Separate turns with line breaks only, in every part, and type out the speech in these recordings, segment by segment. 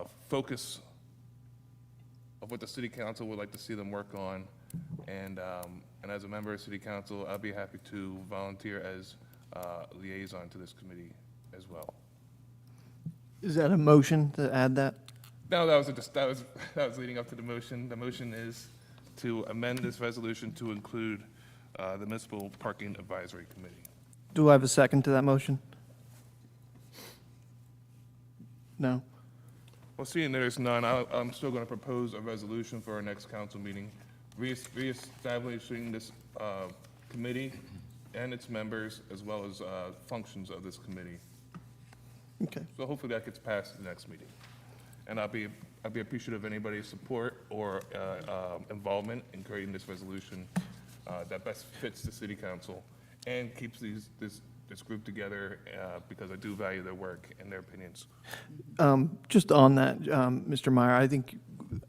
a focus of what the city council would like to see them work on. And, um, and as a member of city council, I'll be happy to volunteer as, uh, liaison to this committee as well.
Is that a motion to add that?
No, that was, a dis- that was, that was leading up to the motion. The motion is to amend this resolution to include, uh, the municipal parking advisory committee.
Do I have a second to that motion? No?
Well, seeing there's none, I, I'm still gonna propose a resolution for our next council meeting, rees- reestablishing this, uh, committee and its members, as well as, uh, functions of this committee.
Okay.
So hopefully that gets passed at the next meeting. And I'll be, I'll be appreciative of anybody's support or, uh, um, involvement in creating this resolution, uh, that best fits the city council and keeps these, this, this group together, uh, because I do value their work and their opinions.
Um, Just on that, um, Mr. Meyer, I think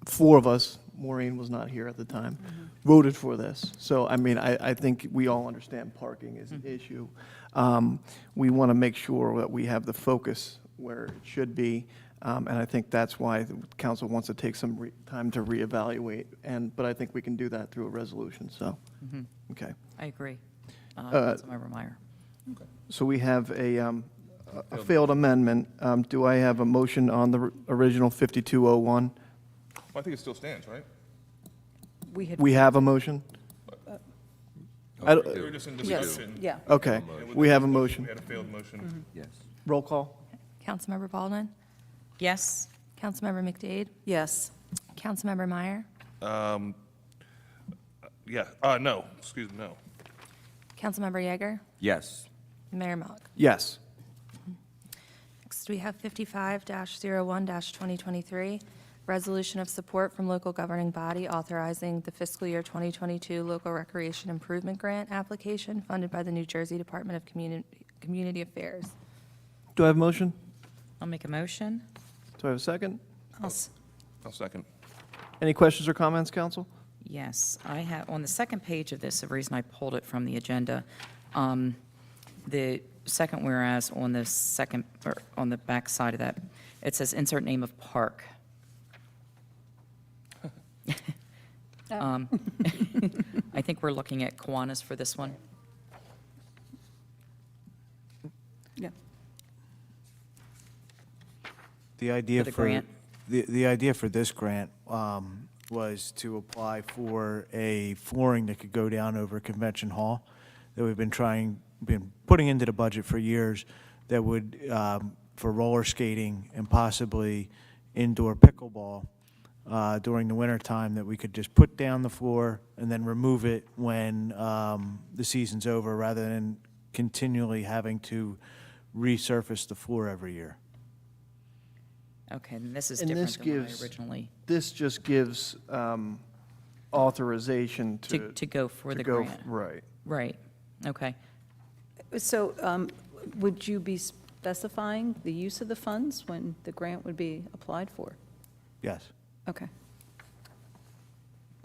four of us, Maureen was not here at the time, voted for this. So, I mean, I, I think we all understand parking is an issue. Um, We want to make sure that we have the focus where it should be. Um, And I think that's why the council wants to take some re- time to reevaluate. And, but I think we can do that through a resolution, so, okay.
I agree. Uh,
Uh,
Councilmember Meyer.
So we have a, um, a a failed amendment. Um, Do I have a motion on the r- original 5201?
Well, I think it still stands, right?
We had,
We have a motion? I don't-
They were just in
Yes,
discussion.
yeah.
Okay, we have a motion.
We had a failed motion.
Yes.
Roll call?
Councilmember Baldwin,
yes,
Councilmember McDade,
Yes,
Councilmember Meyer,
Yeah, uh, no, excuse me, no.
Councilmember Yeager,
Yes.
Mayor Malik.
Yes.
Next, we have 55-01-2023, resolution of support from local governing body authorizing the fiscal year 2022 local recreation improvement grant application funded by the New Jersey Department of Communi- Community Affairs.
Do I have a motion?
I'll make a motion.
Do I have a second?
I'll s-
I'll second.
Any questions or comments, council?
Yes, I have, on the second page of this, the reason I pulled it from the agenda, um, the second whereas on the second, or on the back side of that, it says insert name of park. Um, I think we're looking at Kiwanis for this one.
yeah.
The idea
For the
for,
grant?
the, the idea for this grant um, was to apply for a flooring that could go down over Convention Hall that we've been trying, been putting into the budget for years that would, um, for roller skating and possibly indoor pickleball uh, during the winter time that we could just put down the floor and then remove it when um, the season's over rather than continually having to resurface the floor every year.
Okay, and this is
And
different
this
than what
gives-
I originally,
This just gives um, authorization
to,
to.
to go for
to
the
go-
grant.
Right.
Right, okay.
So um, would you be specifying the use of the funds when the grant would be applied for?
Yes.
Okay.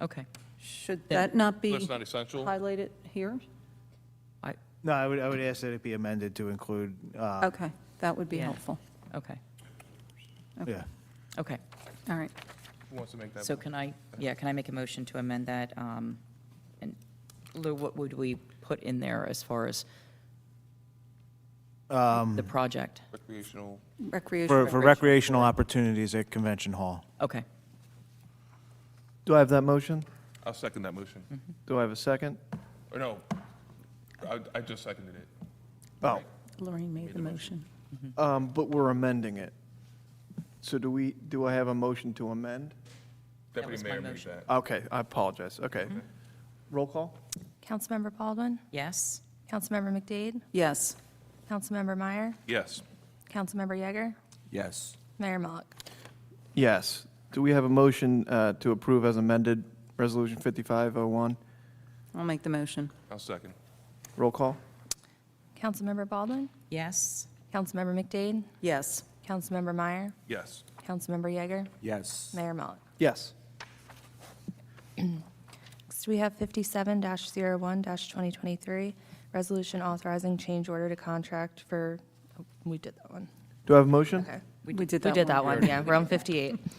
Okay.
Should
Yeah.
that not be
That's not essential.
highlighted here?
I,
No, I would, I would ask that it be amended to include, uh,
Okay, that would be
Yeah.
helpful.
okay,
yeah.
okay.
All right.
Who wants to make that?
So can I, yeah, can I make a motion to amend that? um, And Lou, what would we put in there as far as the project?
Recreational.
For,
Recreation.
for recreational opportunities at Convention Hall.
Okay,
Do I have that motion?
I'll second that motion.
Mm.
Do I have a second?
Or no, I, I just seconded it.
Oh,
Lorraine made the motion.
um, but we're amending it. So do we, do I have a motion to amend?
Deputy
was my
Mayor made
motion.
that.
Okay, I apologize, okay.
Mm-hmm.
Roll call?
Councilmember Baldwin,
yes?
Councilmember McDade,
Yes,
Councilmember Meyer,
Yes.
Councilmember Yeager,
Yes.
Mayor Malik.
Yes. Do we have a motion uh, to approve as amended, Resolution 5501?
I'll make the motion.
I'll second.
Roll call?
Councilmember Baldwin,
Yes?
Councilmember McDade,
Yes,
Councilmember Meyer,
Yes.
Councilmember Yeager,
Yes.
Mayor Malik.
Yes.
Next, we have 57-01-2023, resolution authorizing change order to contract for, oh, we did that one.
Do I have a motion?
Okay.
We did that
We did
one.
that one, yeah, room 58.